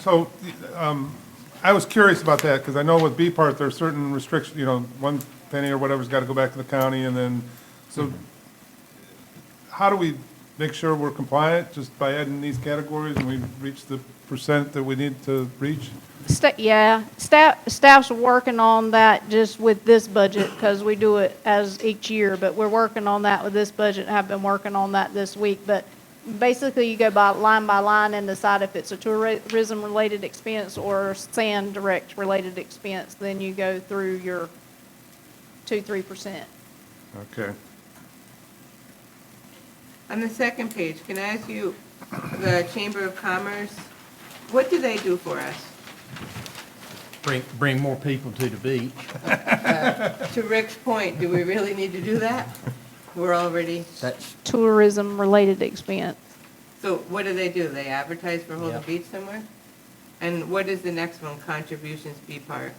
So um, I was curious about that, because I know with B part, there are certain restrictions, you know, one penny or whatever's got to go back to the county, and then, so how do we make sure we're compliant, just by adding these categories, and we reach the percent that we need to reach? Sta- Yeah, staff, staff's working on that just with this budget, because we do it as each year, but we're working on that with this budget, have been working on that this week, but basically you go by, line by line and decide if it's a tourism-related expense or sand direct-related expense, then you go through your two, three percent. Okay. On the second page, can I ask you, the Chamber of Commerce, what do they do for us? Bring, bring more people to the beach. To Rick's point, do we really need to do that? We're already, That's, Tourism-related expense. so what do they do? They advertise for Holden Yeah. Beach somewhere? And what is the next one, contributions B part?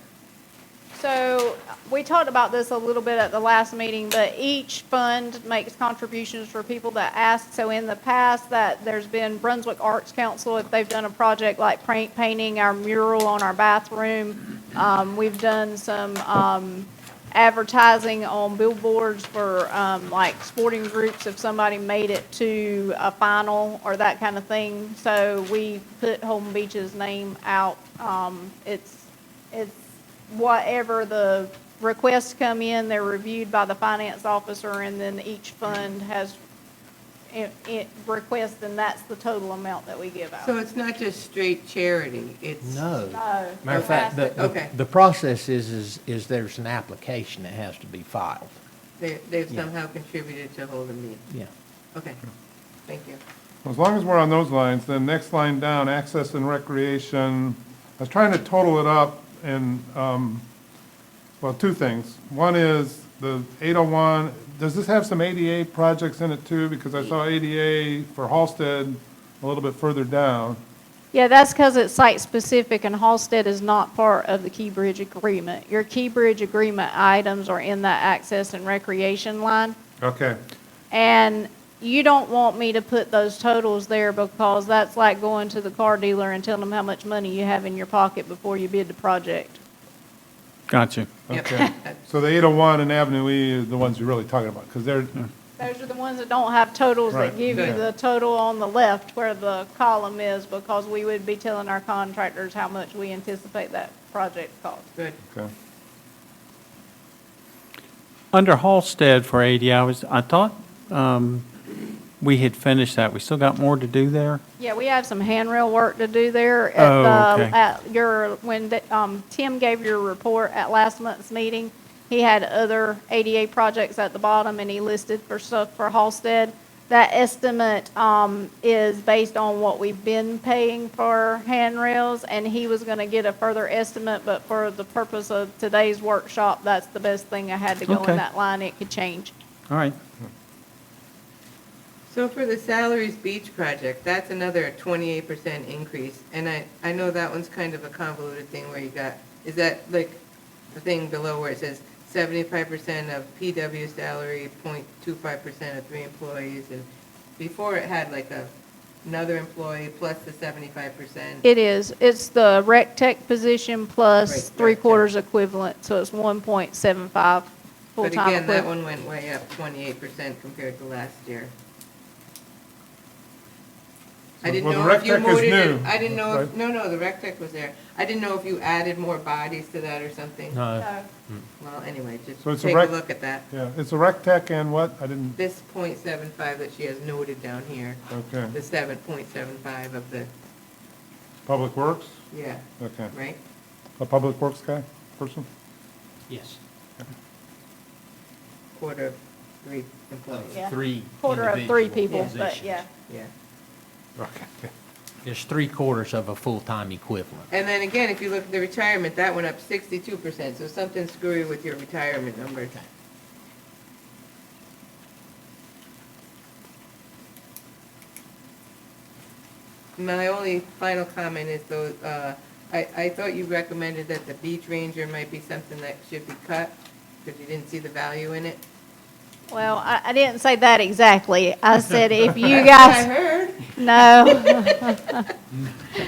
So, we talked about this a little bit at the last meeting, but each fund makes contributions for people that ask. So in the past, that there's been Brunswick Arts Council, if they've done a project like paint, painting our mural on our bathroom. Um, we've done some, um, advertising on billboards for, um, like sporting groups if somebody made it to a final or that kind of thing. So we put Holden Beach's name out. Um, it's, it's whatever the requests come in, they're reviewed by the finance officer, and then each fund has it- it requests, and that's the total amount that we give out. So it's not just straight charity, it's. no. No. Matter of fact, the, Okay. the- the process is, is, is there's an application that has to be filed. They, they've Yeah. somehow contributed to Holden Beach. Yeah. Okay, thank you. As long as we're on those lines, then next line down, access and recreation, I was trying to total it up and, um, well, two things. One is the 801, does this have some ADA projects in it too? Because I saw ADA for Halsted a little bit further down. Yeah, that's because it's site-specific, and Halsted is not part of the Key Bridge agreement. Your Key Bridge agreement items are in that access and recreation line. Okay, And you don't want me to put those totals there because that's like going to the car dealer and telling them how much money you have in your pocket before you bid the project. Gotcha. Yep. okay. So the 801 and Avenue E is the ones you're really talking about, because they're, Those are the ones that don't have totals Right, that give you yeah. the total on the left where the column is because we would be telling our contractors how much we anticipate that project cost. Good. okay. Under Halsted for 80 hours, I thought um, we had finished that. We still got more to do there? Yeah, we have some handrail work to do there Oh, at the, okay. at your, when, the- um, Tim gave your report at last month's meeting, he had other ADA projects at the bottom and he listed for stuff for Halsted. That estimate, um, is based on what we've been paying for handrails and he was gonna get a further estimate, but for the purpose of today's workshop, that's the best thing I had to go Okay. in that line. It could change. All right. So for the salaries beach project, that's another twenty-eight percent increase, and I, I know that one's kind of a convoluted thing where you got, is that like the thing below where it says seventy-five percent of PW salary, 0.25 percent of three employees, and before it had like a, another employee plus the seventy-five percent. It is. It's the rec tech position plus Right, three rec tech. quarters equivalent, so it's one point seven five But full-time again, that equivalent. one went way up twenty-eight percent compared to last year. I So- didn't well, the know if you rec tech is moved it, new, I didn't know, if right? no, no, the rec tech was there. I didn't know if you added more bodies to that or something. No, Well, anyway, just So it's a take a rec- look at that. Yeah, it's a rec tech and what? I didn't, This point seven five that she has noted down here, okay. the seven point seven five of the, Public Works? yeah, Okay. right? A Public Works guy, person? yes. Quarter of three employees, Yeah. Three. Quarter of three individual people, but yeah. positions. yeah. Okay. It's three quarters of a full-time equivalent. And then again, if you look at the retirement, that went up sixty-two percent, so something screwy with your retirement numbers. My only final comment is though, uh, I, I thought you recommended that the beach ranger might be something that should be cut, because you didn't see the value in it. Well, I, I didn't say that exactly. I said if you That's what I guys, heard. no.